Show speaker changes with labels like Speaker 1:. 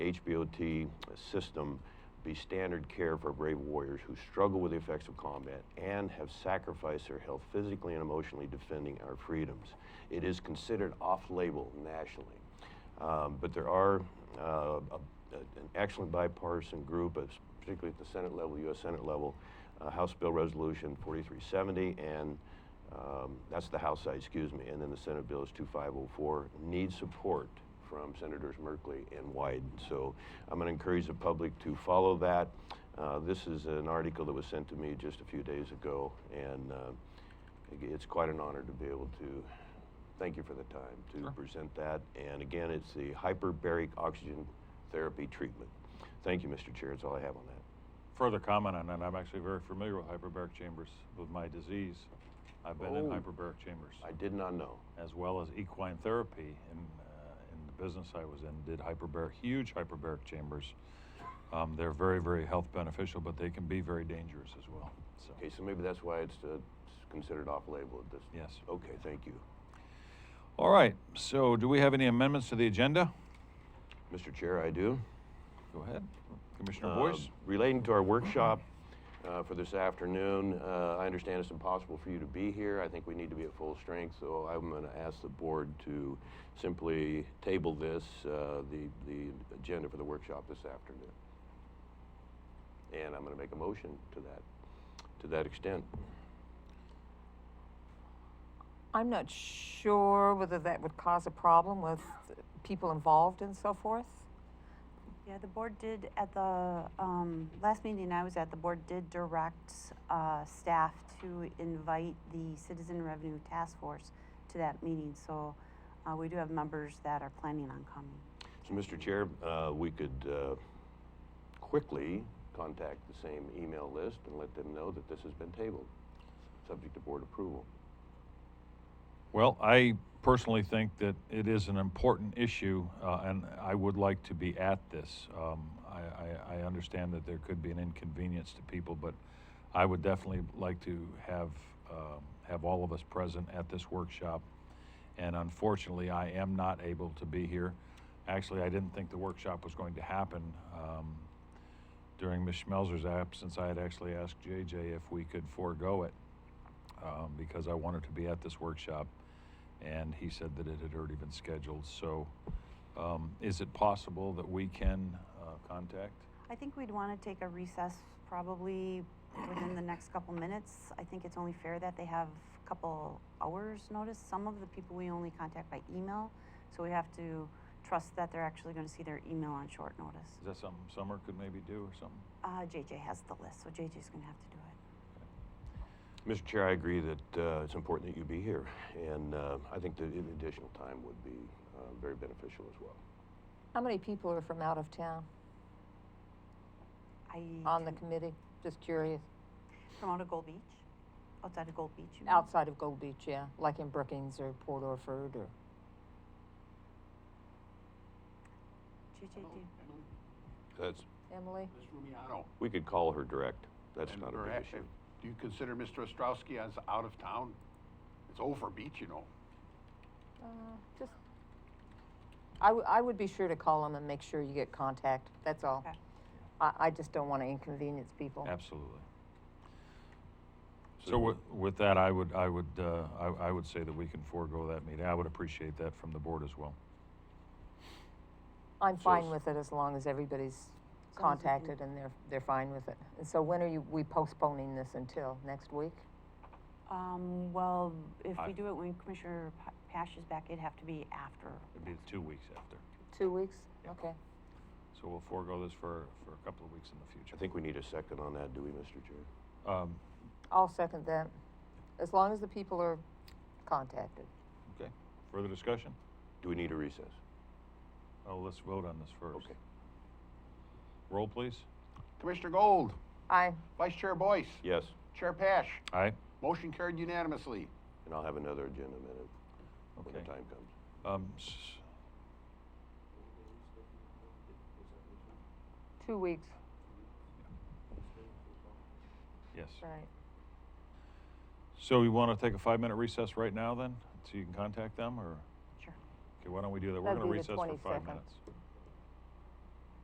Speaker 1: HBOT system be standard care for brave warriors who struggle with the effects of combat and have sacrificed their health physically and emotionally defending our freedoms. It is considered off label nationally. Um, but there are uh, a, a- an excellent bipartisan group, uh, particularly at the Senate level, U.S. Senate level, uh, House Bill Resolution 4370, and um, that's the House side, excuse me, and then the Senate Bill is 2504, needs support from Senators Merkley and Wyden. So I'm going to encourage the public to follow that. Uh, this is an article that was sent to me just a few days ago, and uh, it- it's quite an honor to be able to thank you for the time to present that. And again, it's the hyperbaric oxygen therapy treatment. Thank you, Mr. Chair. That's all I have on that.
Speaker 2: Further comment on that, I'm actually very familiar with hyperbaric chambers with my disease. I've been in
Speaker 1: Oh.
Speaker 2: hyperbaric chambers,
Speaker 1: I did not know.
Speaker 2: as well as equine therapy. In, uh, in the business I was in, did hyperbaric, huge hyperbaric chambers. Um, they're very, very health beneficial, but they can be very dangerous as well. So,
Speaker 1: Okay, so maybe that's why it's uh, considered off-label at this.
Speaker 2: yes.
Speaker 1: Okay, thank you.
Speaker 2: All right. So, do we have any amendments to the agenda?
Speaker 1: Mr. Chair, I do.
Speaker 2: Go ahead, Commissioner
Speaker 1: Uh,
Speaker 2: Boyce.
Speaker 1: Relating to our workshop uh, for this afternoon, uh, I understand it's impossible for you to be here. I think we need to be at full strength, so I'm going to ask the board to simply table this, uh, the, the agenda for the workshop this afternoon. And I'm going to make a motion to that, to that extent.
Speaker 3: I'm not sure whether that would cause a problem with people involved and so forth.
Speaker 4: Yeah, the board did at the, um, last meeting I was at, the board did direct, uh, staff to invite the Citizen Revenue Task Force to that meeting, so, uh, we do have members that are planning on coming.
Speaker 1: So, Mr. Chair, uh, we could uh, quickly contact the same email list and let them know that this has been tabled, subject to board approval.
Speaker 2: Well, I personally think that it is an important issue, uh, and I would like to be at this. Um, I, I, I understand that there could be an inconvenience to people, but I would definitely like to have, um have all of us present at this workshop. And unfortunately, I am not able to be here. Actually, I didn't think the workshop was going to happen. Um, during Ms. Schmelzer's absence, I had actually asked JJ if we could forego it um, because I wanted to be at this workshop, and he said that it had already been scheduled. So, um, is it possible that we can uh, contact?
Speaker 4: I think we'd wanna take a recess probably within the next couple minutes. I think it's only fair that they have a couple hours notice. Some of the people we only contact by email, so we have to trust that they're actually gonna see their email on short notice.
Speaker 2: Is that something Summer could maybe do or something?
Speaker 4: Uh, JJ has the list, so JJ's gonna have to do it.
Speaker 1: Mr. Chair, I agree that uh, it's important that you be here, and uh, I think that an additional time would be uh, very beneficial as well.
Speaker 3: How many people are from out of town
Speaker 4: I
Speaker 3: on the
Speaker 4: didn't-
Speaker 3: committee? Just curious.
Speaker 4: from out of Gold Beach, outside of Gold Beach. you mean?
Speaker 3: Outside of Gold Beach, yeah, like in Brookings or Port Orford or.
Speaker 4: JJ, do you-
Speaker 1: That's,
Speaker 3: Emily?
Speaker 5: Ms. Rumiano.
Speaker 1: we could call her direct. That's
Speaker 5: and
Speaker 1: not a big
Speaker 5: Barrett,
Speaker 1: issue.
Speaker 5: Do you consider Mr. Ostrowski as out of town? It's over beach, you know.
Speaker 3: Uh, just. I, w- I would be sure to call them and make sure you get contact. That's
Speaker 2: Oh.
Speaker 3: all.
Speaker 4: Okay.
Speaker 3: I, I just don't want to inconvenience people.
Speaker 2: Absolutely. So with, with that, I would, I would, uh, I, I would say that we can forego that meeting. I would appreciate that from the board as well.
Speaker 3: I'm
Speaker 1: So
Speaker 3: fine
Speaker 1: it's-
Speaker 3: with it as long as everybody's
Speaker 4: we can-
Speaker 3: contacted and they're, they're fine with it. And so when are you, we postponing this until next week?
Speaker 4: um, well, if
Speaker 2: I-
Speaker 4: we do it when Commissioner Pa- Pash is back, it'd have to be after.
Speaker 2: It'd be two weeks after.
Speaker 3: Two weeks? Okay.
Speaker 2: So we'll forego this for, for a couple of weeks in the future.
Speaker 1: I think we need a second on that, do we, Mr. Chair?
Speaker 2: Um,
Speaker 3: I'll second that, as long as the people are contacted.
Speaker 2: okay. Further discussion?
Speaker 1: Do we need a recess?
Speaker 2: Oh, let's vote on this first.
Speaker 1: Okay.
Speaker 2: Roll, please.
Speaker 5: Commissioner Gold,
Speaker 3: I,
Speaker 5: Vice Chair Boyce,
Speaker 1: Yes,
Speaker 5: Chair Pash,
Speaker 2: Aye.
Speaker 5: motion carried unanimously.
Speaker 1: and I'll have another agenda minute when the
Speaker 2: Okay.
Speaker 1: time comes.
Speaker 2: Um, s-
Speaker 3: two weeks,
Speaker 2: yes.
Speaker 3: right.
Speaker 2: So you want to take a five-minute recess right now then, so you can contact them, or,
Speaker 4: Sure.
Speaker 2: okay, why don't we do that? We're
Speaker 3: That'd
Speaker 2: going to
Speaker 3: be
Speaker 2: recess
Speaker 3: the
Speaker 2: for five
Speaker 3: 22nd.
Speaker 2: minutes.